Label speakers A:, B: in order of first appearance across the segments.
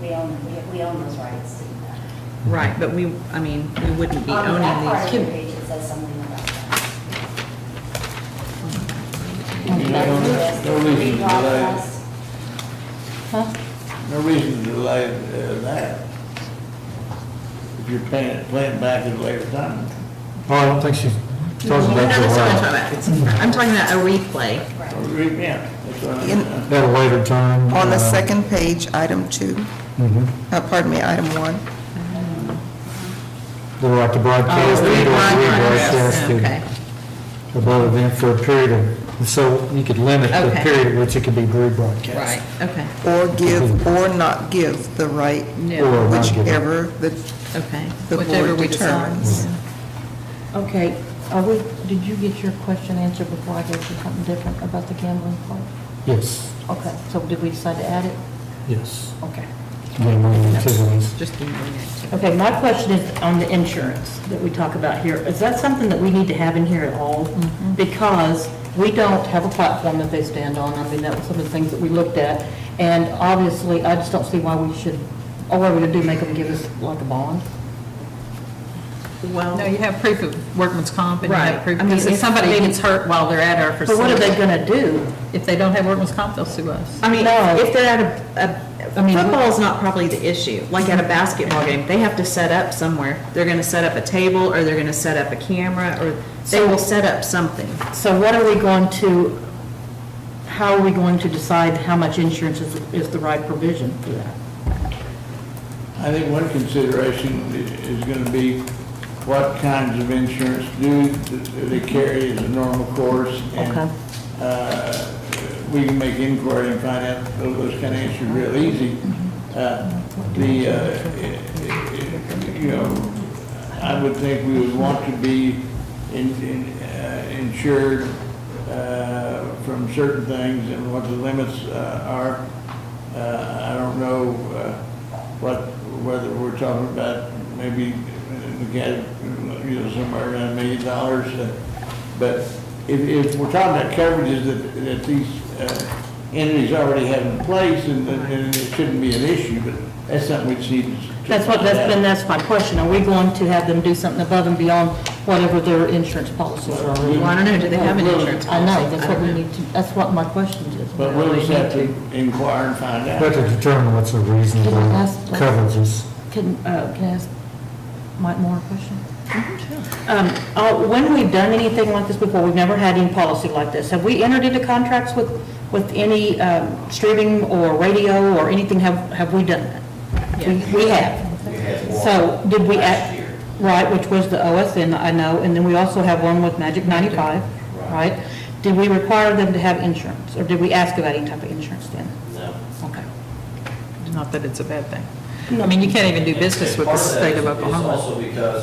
A: we own, we- we own those rights to do that.
B: Right, but we, I mean, we wouldn't be
A: On that
B: owning
A: part
B: these.
A: of the page, it says something about that.
C: Yeah, No no reason to delay,
A: Reclass.
D: Huh?
C: no reason to delay uh, that. If you're paying, playing back at a later time.
E: Oh, I don't think she's talking
B: No,
E: about
B: that's what I'm talking about.
E: that.
B: It's- I'm talking about a replay.
C: Or re- Yeah, that's what I'm
D: In-
C: saying.
E: At a later time.
D: On the
E: uh,
D: second page, item two,
E: mhm.
D: uh, pardon me, item one.
E: The right to broadcast
B: Oh,
E: and
B: rebroadcast,
E: or
B: okay.
E: rebroadcast the above event for a period of, so you could limit the
B: Okay.
E: period at which it could be rebroadcast.
B: Right, okay,
D: Or give or not give the right,
B: no,
E: Or not given.
D: whichever the,
B: okay.
D: the
B: Whatever
D: board
B: we decide.
D: determines.
F: Okay, are we, did you get your question answered before I gave you something different about the gambling part?
E: Yes,
F: Okay, so did we decide to add it?
E: yes.
F: Okay.
E: Gambling activities.
B: Just doing it.
F: Okay, my question is on the insurance that we talk about here. Is that something that we need to have in here at all? Because we don't have a platform that they stand on. I mean, that was some of the things that we looked at. And obviously, I just don't see why we should, all we're going to do, make them give us like a bond?
B: Well,
G: No, you have proof of workman's comp and you
B: Right.
G: have proof,
B: I mean,
G: because if
B: if
G: somebody
B: they-
G: gets hurt while they're at our
F: But what are they
G: facility,
F: going to do?
G: if they don't have workman's comp, they'll sue us.
B: I mean,
F: No.
B: if they're at a, a,
G: I mean, we-
B: football's not probably the issue. Like at a basketball game, they have to set up somewhere. They're gonna set up a table, or they're gonna set up a camera, or they will set up something.
F: So what are we going to, how are we going to decide how much insurance is, is the right provision for that?
C: I think one consideration i- is gonna be what kinds of insurance do th- they carry as a normal course.
F: Okay.
C: and uh, We can make inquiry and find out those kind of issues real easy. Uh, The, uh, i- i- you know, I would think we would want to be in- in, uh, insured uh, from certain things and what the limits uh, are. Uh, I don't know uh, what, whether we're talking about maybe, uh, the cat- you know, somewhere around a million dollars. uh, But if, if we're talking about coverages that, that these uh, entities already have in place, and, and it shouldn't be an issue, but that's something we see.
F: That's what, that's been, that's my question. Are we going to have them do something above and beyond whatever their insurance policies are?
B: Well, I don't know, do they have an insurance
F: I
B: policy?
F: know, that's what we
B: don't know.
F: need to, that's what my question is.
C: But we'll just have to inquire and find out.
E: But to determine what's a reasonable
F: Can I ask-
E: coverages.
F: Can, uh, can I ask Mike Moore a question? Um, uh, when we've done anything like this before, we've never had any policy like this. Have we entered into contracts with, with any, um, streaming or radio or anything? Have, have we done that? We- We have.
H: We had one
F: So did we
H: last
F: act,
H: year.
F: right, which was the OSN, I know, and then we also have one with Magic 95,
H: Right.
F: right? Did we require them to have insurance, or did we ask about any type of insurance then?
H: No.
F: Okay.
G: Not that it's a bad thing.
F: No.
G: I mean, you can't even do business
H: And
G: with the
H: part that
G: state of
H: is- Is
G: Oklahoma.
H: also because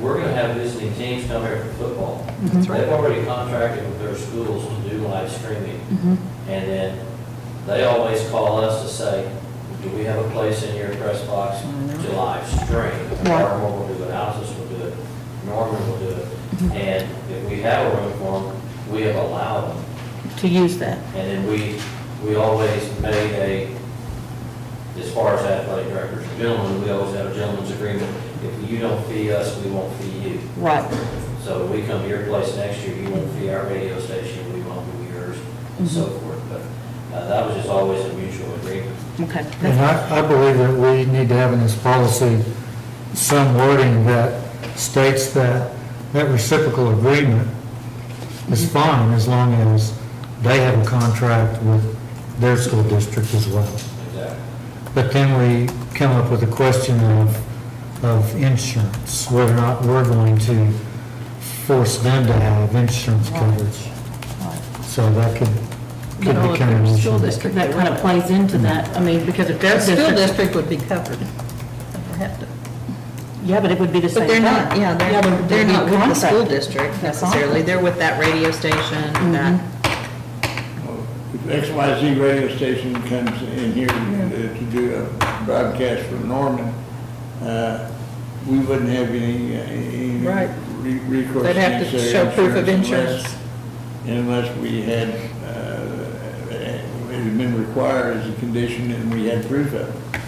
H: we're going to have visiting teams come here for football.
G: Mm-hmm. That's right.
H: They've already contracted with their schools to do live streaming.
G: Mm-hmm.
H: And then they always call us to say, do we have a place in your press box to live stream?
F: Right.
H: Norman will do it, Alice will do it, Norman will do
G: Mm-hmm.
H: it. And if we have a room for them, we have allowed them.
F: To use that?
H: And then we, we always made a, as far as athletic directors, are gentlemen, we always have a gentleman's agreement. If you don't fee us, we won't fee you.
F: Right.
H: So we come to your place next year, you won't fee our radio station, we won't do yours, and so forth. But uh, that was just always a mutual agreement.
F: Okay.
E: And I, I believe that we need to have in this policy some wording that states that that reciprocal agreement is fine as long as they have a contract with their school district as well.
H: Exactly.
E: But then we come up with a question of, of insurance, whether or not we're going to force them to have insurance coverage. So that could, could
G: But all of
E: become an
G: their
E: issue.
G: school district,
F: That kind of plays into that, I mean, because if
G: their
F: they're
G: school
F: different,
G: district would be covered. They'd have to.
F: yeah, but it would be the same
B: But
F: thing.
B: they're not, yeah, they're,
F: but
B: they're
F: we
B: not with the school
F: contract.
B: district
F: They're
B: necessarily. They're with that radio station, that,
G: Mm-hmm.
C: If X, Y, Z radio station comes in here uh, to do a broadcast from Norman, uh, we wouldn't have any, uh, any
G: Right.
C: re- recourse.
G: They'd have to
C: necessary
G: show proof of
C: unless-
G: insurance.
C: Unless we had, uh, it had been required as a condition and we had proof of it.